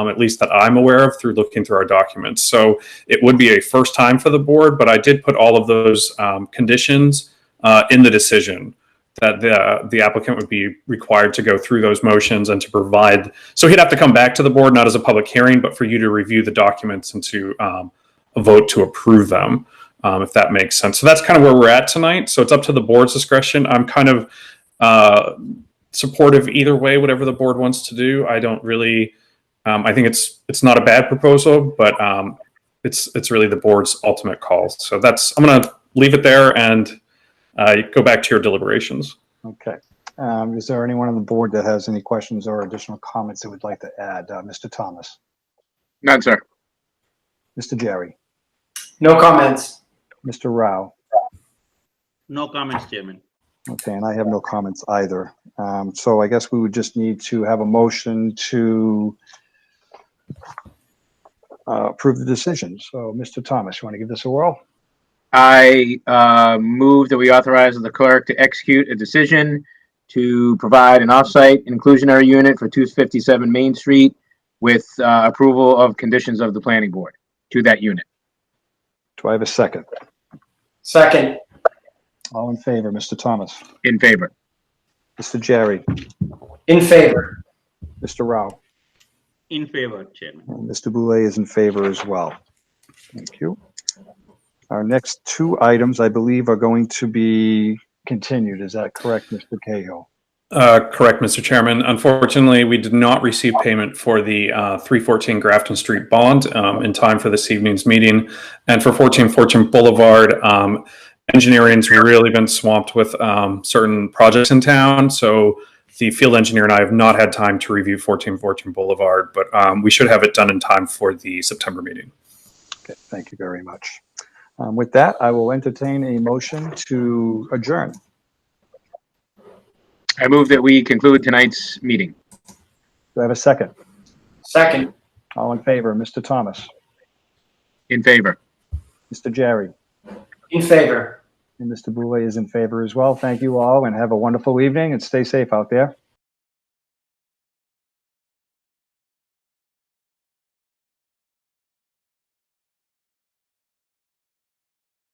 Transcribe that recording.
um, at least that I'm aware of through looking through our documents. So it would be a first time for the board, but I did put all of those um, conditions uh, in the decision that the, the applicant would be required to go through those motions and to provide. So he'd have to come back to the board, not as a public hearing, but for you to review the documents and to um, vote to approve them, um, if that makes sense. So that's kind of where we're at tonight. So it's up to the board's discretion. I'm kind of uh, supportive either way, whatever the board wants to do. I don't really, um, I think it's, it's not a bad proposal, but um, it's, it's really the board's ultimate call. So that's, I'm going to leave it there and uh, you go back to your deliberations. Okay. Um, Is there anyone on the board that has any questions or additional comments they would like to add? Uh, Mr. Thomas, None, sir. Mr. Jerry, No comments. Mr. Rao. No comments, Chairman. Okay, and I have no comments either. Um, So I guess we would just need to have a motion to uh, approve the decision. So, Mr. Thomas, you want to give this a whirl? I uh, move that we authorize the clerk to execute a decision to provide an offsite inclusionary unit for 257 Main Street with uh, approval of conditions of the planning board to that unit. Do I have a second? Second, All in favor, Mr. Thomas, In favor. Mr. Jerry, in favor. Mr. Rao. In favor, Chairman. And Mr. Boulay is in favor as well. Thank you. Our next two items, I believe, are going to be continued. Is that correct, Mr. Cahill? Uh, Correct, Mr. Chairman. Unfortunately, we did not receive payment for the uh, 314 Grafton Street bond um, in time for this evening's meeting. And for 14 Fortune Boulevard, um, engineering's really been swamped with um, certain projects in town. So the field engineer and I have not had time to review 14 Fortune Boulevard, but um, we should have it done in time for the September meeting. Okay, thank you very much. Um, With that, I will entertain a motion to adjourn. I move that we conclude tonight's meeting. Do I have a second? Second, All in favor, Mr. Thomas, In favor. Mr. Jerry, in favor. and Mr. Boulay is in favor as well. Thank you all, and have a wonderful evening, and stay safe out there.